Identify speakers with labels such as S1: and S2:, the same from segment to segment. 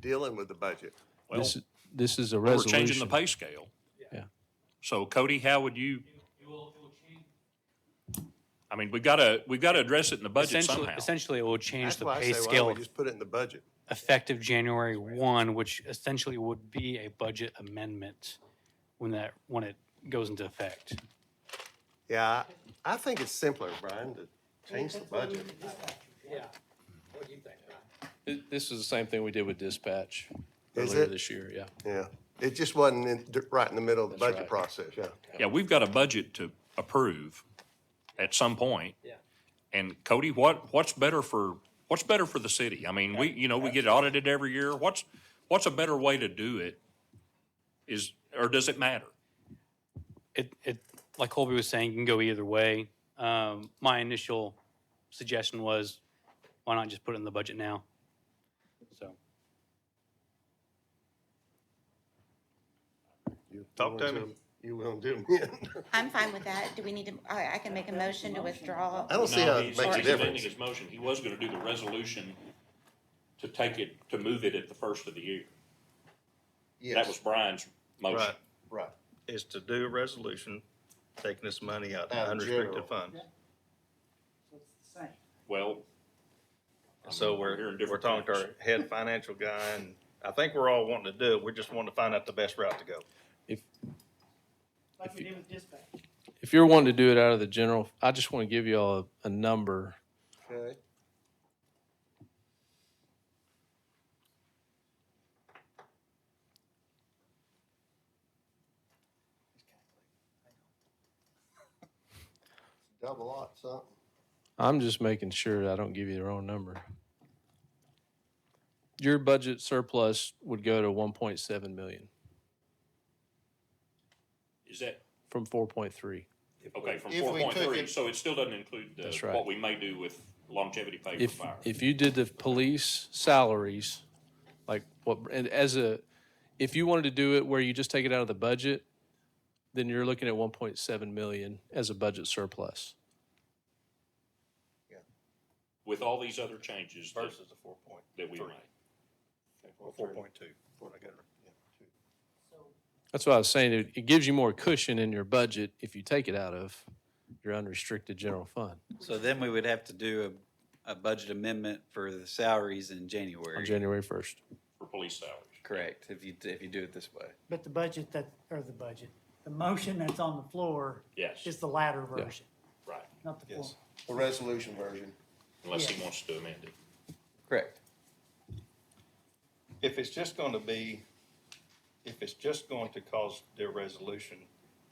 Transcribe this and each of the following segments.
S1: dealing with the budget.
S2: Well,
S3: This, this is a
S2: we're
S3: resolution.
S2: changing the pay scale.
S3: Yeah.
S2: So Cody, how would you,
S4: It will, it will change.
S2: I mean, we gotta, we gotta address it in the budget
S4: Essentially,
S2: somehow.
S4: essentially, it will change
S1: That's
S4: the
S1: why I say,
S4: pay
S1: why don't
S4: scale
S1: we just put it in the budget?
S4: effective January one, which essentially would be a budget amendment when that, when it goes into effect.
S1: Yeah, I I think it's simpler, Brian, to change the budget.
S3: Th- This is the same thing we did with dispatch
S1: Is
S3: earlier
S1: it?
S3: this year, yeah.
S1: Yeah, it just wasn't in, right in the middle of the
S3: That's
S1: budget
S3: right.
S1: process, yeah.
S2: Yeah, we've got a budget to approve at some point. Yeah. And Cody, what, what's better for, what's better for the city? I mean, we, you know, we get audited every year. What's, what's a better way to do it? Is, or does it matter?
S4: It, it, like Colby was saying, can go either way. Um, my initial suggestion was, why not just put it in the budget now? So,
S1: You-
S5: Talk to
S1: you
S5: me.
S1: wanna- You won't do it.
S6: I'm fine with that. Do we need to, I, I can make a motion to withdraw.
S1: I don't see how it makes a
S6: sorry.
S1: difference.
S2: his motion. He was gonna do the resolution to take it, to move it at the first of the year. That
S1: Yes.
S2: was Brian's motion.
S5: Right,
S1: Right.
S5: is to do a resolution taking this money out of
S1: Out of
S5: unrestricted
S1: general.
S5: funds.
S2: Well.
S5: So we're,
S2: hearing
S5: we're
S2: different
S5: talking to
S2: things.
S5: our head financial guy, and I think we're all wanting to do it, we're just wanting to find out the best route to go.
S7: Like we did with dispatch.
S3: If you're wanting to do it out of the general, I just want to give you all a, a number.
S1: Okay. Double lot something.
S3: I'm just making sure I don't give you the wrong number. Your budget surplus would go to one point seven million
S2: Is that,
S3: from four point three.
S2: okay, from
S1: If
S2: four
S1: we took
S2: point three,
S1: it-
S2: so it still doesn't include the,
S3: That's right.
S2: what we may do with longevity pay for
S3: If,
S2: fire.
S3: if you did the police salaries, like what, and as a, if you wanted to do it where you just take it out of the budget, then you're looking at one point seven million as a budget surplus.
S2: With all these other changes that,
S5: Versus the four point,
S2: that we made.
S5: or four point two, what I got.
S3: That's what I was saying. It, it gives you more cushion in your budget if you take it out of your unrestricted general fund
S8: So then we would have to do a, a budget amendment for the salaries in
S3: on
S8: January.
S3: January first.
S2: for police salaries.
S8: Correct, if you, if you do it this way.
S7: But the budget that, or the budget, the motion that's on the floor
S2: Yes,
S7: is the latter version,
S2: right,
S7: not the former.
S1: The resolution version.
S2: unless he
S7: Yeah.
S2: wants to amend it.
S8: Correct.
S5: If it's just going to be, if it's just going to cause their resolution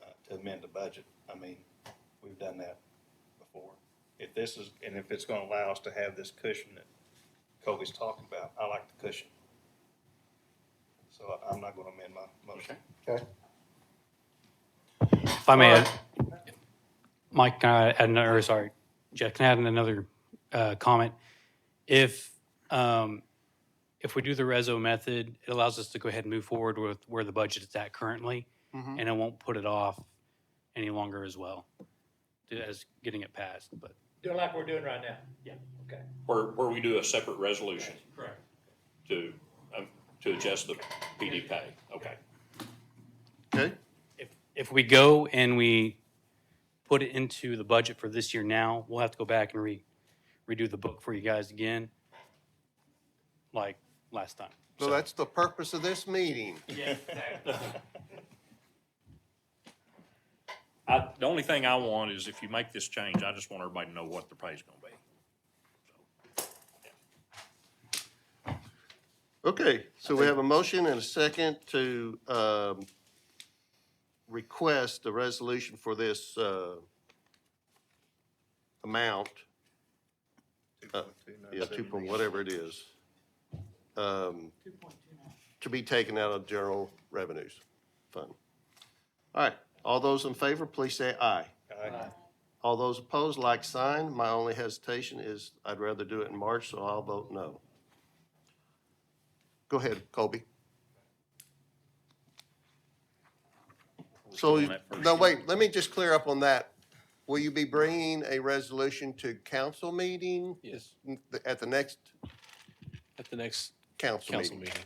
S5: uh, to amend the budget, I mean, we've done that before. If this is, and if it's going to allow us to have this cushion that Kobe's talking about, I like the cushion. So I- I'm not going to amend my motion.
S1: Okay.
S4: if I may add, Mike, can I add another, or sorry, Jeff, can I add another uh, comment? If, um, if we do the reso method, it allows us to go ahead and move forward with where the budget is at currently, and it won't put it off any longer as well, as getting it passed, but.
S9: Do it like we're doing right now. Yeah. Okay.
S2: Where, where we do a separate resolution
S9: Correct.
S2: to, um, to adjust the PD pay, okay.
S1: Okay.
S4: if, if we go and we put it into the budget for this year now, we'll have to go back and re, redo the book for you guys again, like last time.
S1: So that's the purpose of this meeting.
S9: Yeah, exactly.
S2: I, the only thing I want is if you make this change, I just want everybody to know what the pay's gonna be.
S1: Okay, so we have a motion and a second to um, request a resolution for this uh, amount, Uh, yeah, two point, whatever it is, um, to be taken out of general revenues fund. All right, all those in favor, please say aye.
S5: Aye.
S1: All those opposed, like sign. My only hesitation is I'd rather do it in March, so I'll vote no. Go ahead, Colby. So,
S2: on that first
S1: no,
S2: one.
S1: wait, let me just clear up on that. Will you be bringing a resolution to council meeting
S3: Yes,
S1: at the next
S3: at the next
S1: council
S3: council
S1: meeting?
S3: meeting.